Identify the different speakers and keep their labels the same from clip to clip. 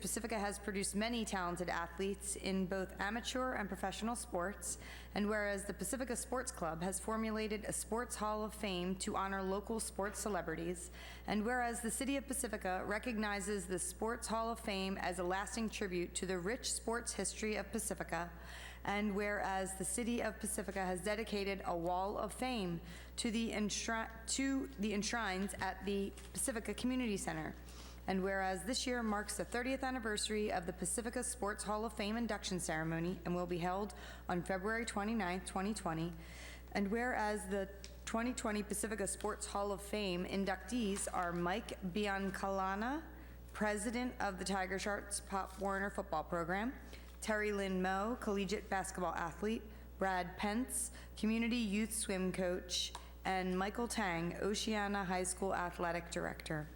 Speaker 1: Pacifica has produced many talented athletes in both amateur and professional sports, and whereas the Pacifica Sports Club has formulated a Sports Hall of Fame to honor local sports celebrities, and whereas the City of Pacifica recognizes the Sports Hall of Fame as a lasting tribute to the rich sports history of Pacifica, and whereas the City of Pacifica has dedicated a Wall of Fame to the enshri- to the enshrines at the Pacifica Community Center, and whereas this year marks the 30th anniversary of the Pacifica Sports Hall of Fame induction ceremony and will be held on February 29, 2020, and whereas the 2020 Pacifica Sports Hall of Fame inductees are Mike Biancalana, President of the Tiger Sharks Pop Warner Football Program, Terry Lynn Moe, Collegiate Basketball Athlete, Brad Pence, Community Youth Swim Coach, and Michael Tang, Oceana High School Athletic Director.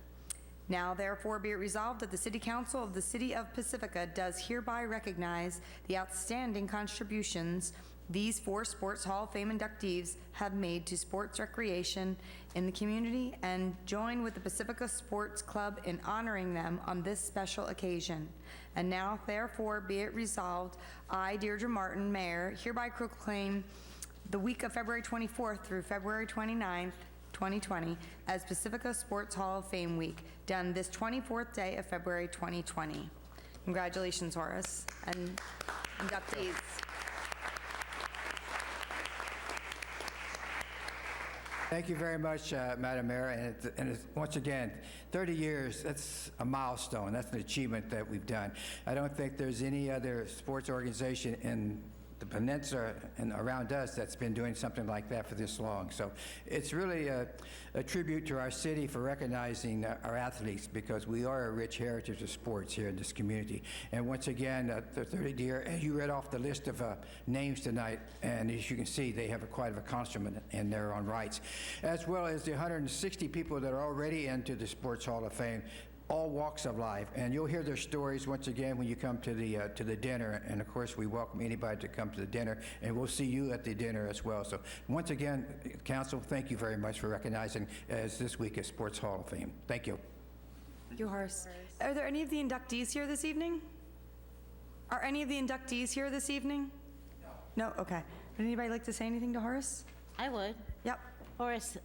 Speaker 1: Now therefore be it resolved that the City Council of the City of Pacifica does hereby recognize the outstanding contributions these four Sports Hall of Fame inductees have made to sports recreation in the community and join with the Pacifica Sports Club in honoring them on this special occasion. And now therefore be it resolved, I, Deirdre Martin, Mayor, hereby proclaim the week of February 24th through February 29th, 2020, as Pacifica Sports Hall of Fame Week, done this 24th day of February 2020. Congratulations, Horace, and inductees.
Speaker 2: Thank you very much, uh, Madam Mayor, and it's- and it's, once again, 30 years, that's a milestone, that's an achievement that we've done. I don't think there's any other sports organization in the peninsula and around us that's been doing something like that for this long. So it's really a a tribute to our city for recognizing uh, our athletes, because we are a rich heritage of sports here in this community. And once again, uh, the 30 year, and you read off the list of uh, names tonight, and as you can see, they have a quite of a consummate in their own rights, as well as the 160 people that are already into the Sports Hall of Fame, all walks of life. And you'll hear their stories once again when you come to the, uh, to the dinner. And of course, we welcome anybody to come to the dinner, and we'll see you at the dinner as well. So once again, council, thank you very much for recognizing as this week is Sports Hall of Fame. Thank you.
Speaker 1: Thank you, Horace. Are there any of the inductees here this evening? Are any of the inductees here this evening? No. No, okay. Would anybody like to say anything to Horace?
Speaker 3: I would.
Speaker 1: Yep.
Speaker 3: Horace,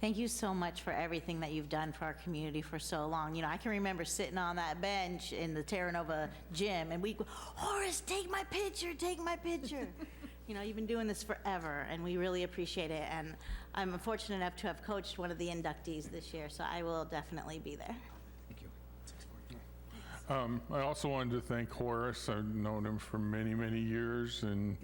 Speaker 3: thank you so much for everything that you've done for our community for so long. You know, I can remember sitting on that bench in the Terra Nova gym, and we, go, Horace, take my picture, take my picture. You know, you've been doing this forever, and we really appreciate it. And I'm fortunate enough to have coached one of the inductees this year, so I will definitely be there.
Speaker 4: Um, I also wanted to thank Horace. I've known him for many, many years, and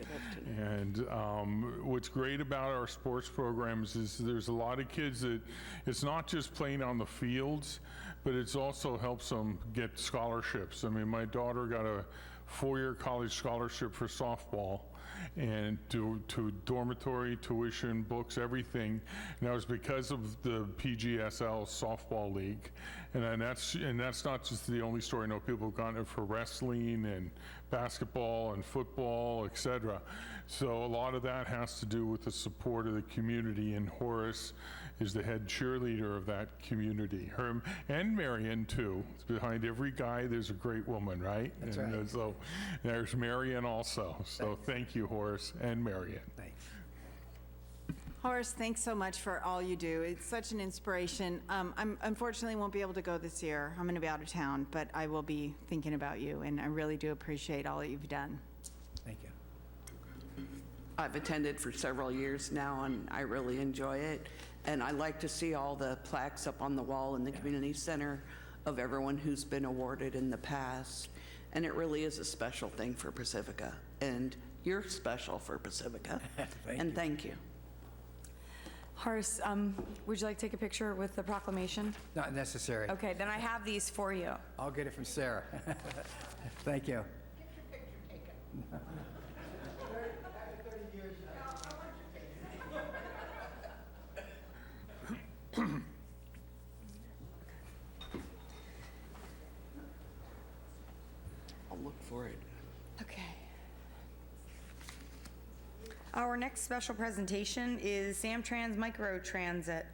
Speaker 4: and um, what's great about our sports programs is there's a lot of kids that it's not just playing on the fields, but it's also helps them get scholarships. I mean, my daughter got a four-year college scholarship for softball, and to, to dormitory, tuition, books, everything. And that was because of the PGSL softball league. And then that's, and that's not just the only story. I know people have gone for wrestling and basketball and football, et cetera. So a lot of that has to do with the support of the community. And Horace is the head cheerleader of that community. Her and Marion too. Behind every guy, there's a great woman, right? uh, That's
Speaker 2: right.
Speaker 4: so there's Marion also. So thank you, Horace and Marion.
Speaker 2: Thanks.
Speaker 5: Horace, thanks so much for all you do. It's such an inspiration. Um, I'm unfortunately won't be able to go this year. I'm going to be out of town, but I will be thinking about you, and I really do appreciate all that you've done.
Speaker 2: Thank you.
Speaker 6: I've attended for several years now, and I really enjoy it. And I like to see all the plaques up on the wall in the community center of everyone who's been awarded in the past. And it really is a special thing for Pacifica, and you're special for Pacifica. And thank you.
Speaker 1: Horace, um, would you like to take a picture with the proclamation?
Speaker 2: Not necessary.
Speaker 1: Okay, then I have these for you.
Speaker 2: I'll get it from Sarah. Thank you.
Speaker 6: I'll look for it.
Speaker 1: Okay. Our next special presentation is Samtrans Microtransit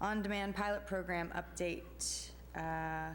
Speaker 1: On-Demand Pilot Program Update. Uh,